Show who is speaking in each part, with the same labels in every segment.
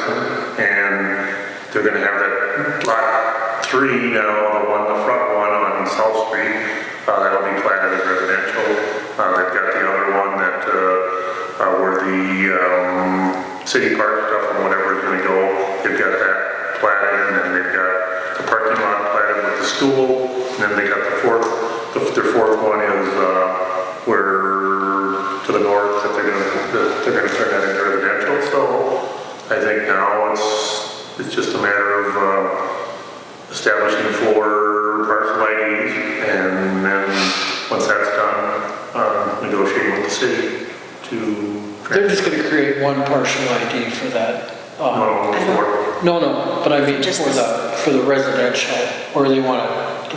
Speaker 1: uh, and they're gonna have that lot three now, the one, the front one on South Street, uh, that'll be planted as residential. Uh, they've got the other one that, uh, uh, where the, um, city park stuff and whatever is gonna go, they've got that platted, and then they've got the parking lot platted with the school, and then they got the fourth, the- their fourth one is, uh, where, to the north, that they're gonna, that they're gonna turn that into residential, so I think now it's, it's just a matter of uh, establishing four parcel IDs and then, once that's done, um, negotiating with the city to.
Speaker 2: They're just gonna create one partial ID for that. uh,
Speaker 1: No, four.
Speaker 2: No, no, but I mean
Speaker 3: Just
Speaker 2: for
Speaker 3: this-
Speaker 2: the, for the residential, or they wanna,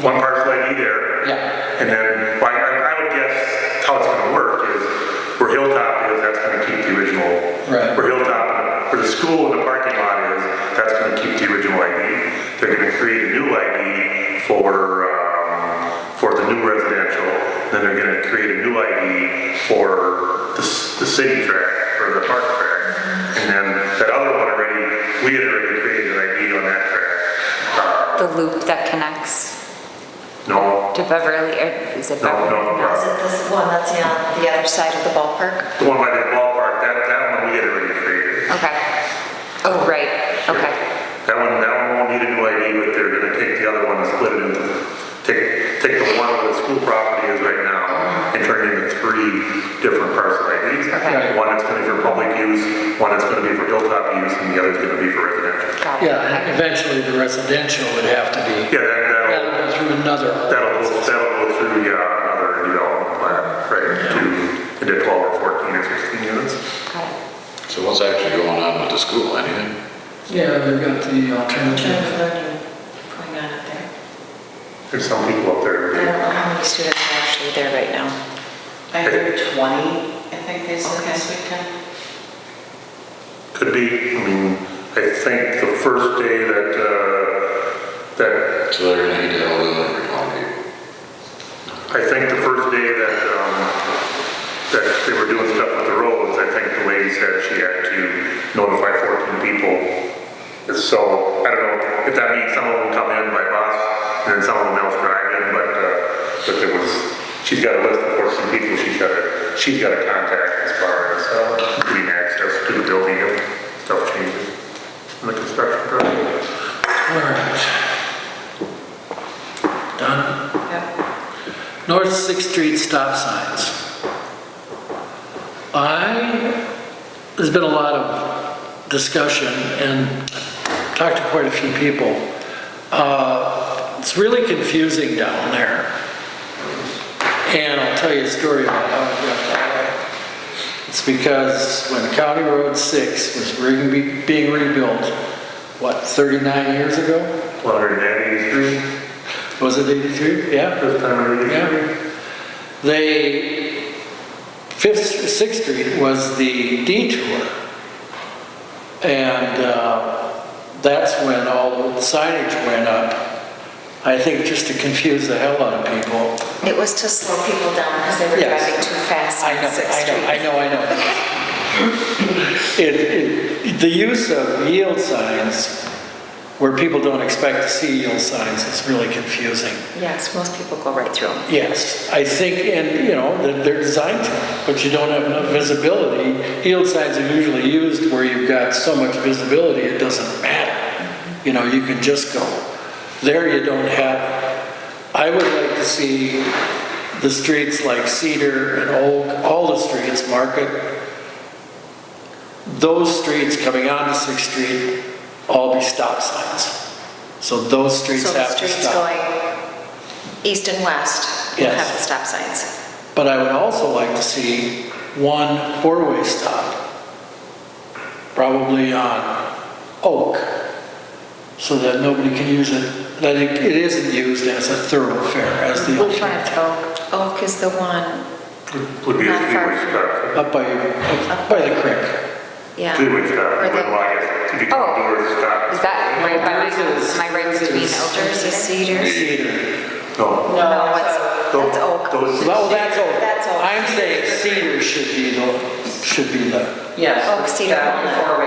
Speaker 1: One parcel ID there.
Speaker 2: yeah,
Speaker 1: And then, well, I, I would guess how it's gonna work is where Hilltop is, that's gonna keep the original.
Speaker 2: Right.
Speaker 1: Where Hilltop, where the school and the parking lot is, that's gonna keep the original ID. They're gonna create a new ID for, um, for the new residential. Then they're gonna create a new ID for the, s- the city track or the park track. And then that other one already, we had already created an ID on that track.
Speaker 3: the loop that connects
Speaker 1: No,
Speaker 3: to Beverly, or is it
Speaker 1: No,
Speaker 3: Beverly?
Speaker 1: no, no.
Speaker 3: Is it this one that's on the other side of the ballpark?
Speaker 1: the one by the ballpark, that, that one we had already created.
Speaker 3: Okay. Oh, right, okay.
Speaker 1: That one, that one won't need a new ID, but they're gonna take the other one and split it into, take, take the one where the school property is right now and turn it into three different parcel IDs.
Speaker 3: Okay.
Speaker 1: One that's gonna be for public use, one that's gonna be for hilltop use, and the other's gonna be for residential.
Speaker 3: Got it.
Speaker 2: yeah, and eventually the residential would have to be,
Speaker 1: Yeah, that,
Speaker 2: that'll
Speaker 1: that'll,
Speaker 2: go through another,
Speaker 1: that'll, go- that'll go through, yeah, another development plan, right, to, into twelve or fourteen or sixteen units.
Speaker 3: Got it.
Speaker 4: So what's actually going on with the school, anything?
Speaker 2: yeah, they've got the alternative.
Speaker 5: Alternative learning going on up there.
Speaker 1: There's some people up there.
Speaker 5: I
Speaker 1: who-
Speaker 5: don't know how many students are actually there right now.
Speaker 6: I heard 20, I think they said this weekend.
Speaker 1: Could be, I mean, I think the first day that, uh, that
Speaker 4: So they're gonna need to all the people.
Speaker 1: I think the first day that, um, that they were doing stuff with the roads, I think the lady said she had to notify fourteen people. So, I don't know if that means some of them come in by bus and then some of them else drive in, but, uh, but there was, she's got a list of fourteen people she's got to, she's got to contact as far as, uh, getting access to the building and stuff changes in the construction project.
Speaker 2: All right. Done?
Speaker 6: Yep.
Speaker 2: North Sixth Street stop signs. I, there's been a lot of discussion and talked to quite a few people. Uh, It's really confusing down there. And I'll tell you a story about how it got that way. It's because when County Road 6 was re- being rebuilt, what, 39 years ago?
Speaker 1: One hundred and eighty-three,
Speaker 2: Was it 83? Yeah.
Speaker 1: this time of year.
Speaker 2: Yeah. They, Fifth, Sixth Street was the detour. And uh, that's when all the signage went up, I think just to confuse the hell out of people.
Speaker 5: It was to slow people down because they were
Speaker 2: Yes.
Speaker 5: driving too fast
Speaker 2: I know,
Speaker 5: on Sixth Street.
Speaker 2: I know, I know, I know. It, it, the use of yield signs, where people don't expect to see yield signs, is really confusing.
Speaker 5: Yes, most people go right through them.
Speaker 2: Yes, I think, and, you know, they're- they're designed to, but you don't have enough visibility. Yield signs are usually used where you've got so much visibility, it doesn't matter. You know, you can just go. There you don't have, I would like to see the streets like Cedar and Oak, all the streets, Market, those streets coming onto Sixth Street, all be stop signs. So those streets
Speaker 5: So the
Speaker 2: have to
Speaker 5: streets
Speaker 2: stop.
Speaker 5: going east and west will
Speaker 2: Yes.
Speaker 5: have the stop signs.
Speaker 2: But I would also like to see one four-way stop, probably on Oak, so that nobody can use it, that it it isn't used as a thoroughfare, as the
Speaker 3: Which one is Oak?
Speaker 5: Oak is Oh, the one,
Speaker 1: Would be a
Speaker 5: Not far.
Speaker 1: three-way stop.
Speaker 2: up by, up by the creek.
Speaker 5: yeah.
Speaker 1: Freeway stop,
Speaker 3: Or the-
Speaker 1: well, I guess, if you
Speaker 3: Oh.
Speaker 1: can do it, stop.
Speaker 3: Is that right by my house?
Speaker 2: Yours is-
Speaker 3: Am I right between Elders
Speaker 5: There's a
Speaker 3: and
Speaker 5: Cedars.
Speaker 2: Cedar.
Speaker 1: No.
Speaker 5: No, it's,
Speaker 1: Those-
Speaker 5: that's Oak.
Speaker 1: Those,
Speaker 2: Well, that's Oak.
Speaker 5: That's Oak.
Speaker 2: I'm saying Cedar should be the, should be the,
Speaker 6: Yes.
Speaker 5: Oak, Oh, cedar,
Speaker 6: that
Speaker 5: walnut.
Speaker 6: Four-way